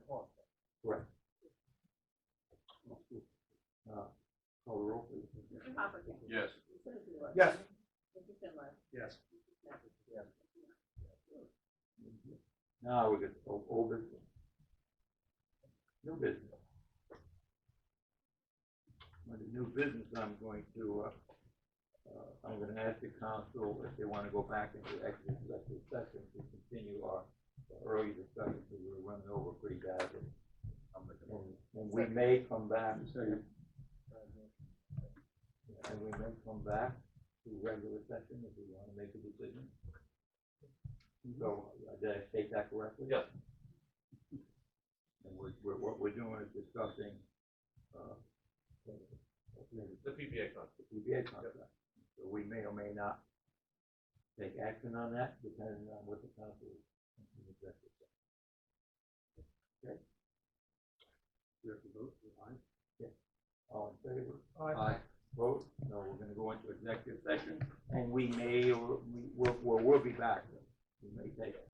Morgan. Yes. Mr. Lewis. Yes. Mr. Schindler. Yes. Now we get o- Oh, old business. New business. With the new business, I'm going to, uh, uh, I'm gonna ask the council if they wanna go back into executive session to continue our early discussion, because we're running over pretty badly. And and we may come back. And we may come back to regular session if we wanna make a decision. So, uh, did I state that correctly? Yes. And we're, we're, what we're doing is discussing, uh, the The PPA contract. PBA contract. So we may or may not take action on that depending on what the council. in the executive session. Okay? We have to vote, we're on? Yeah. All in favor? Aye. Vote, no, we're gonna go into executive session, and we may, or we, we'll, we'll, we'll be back, we may take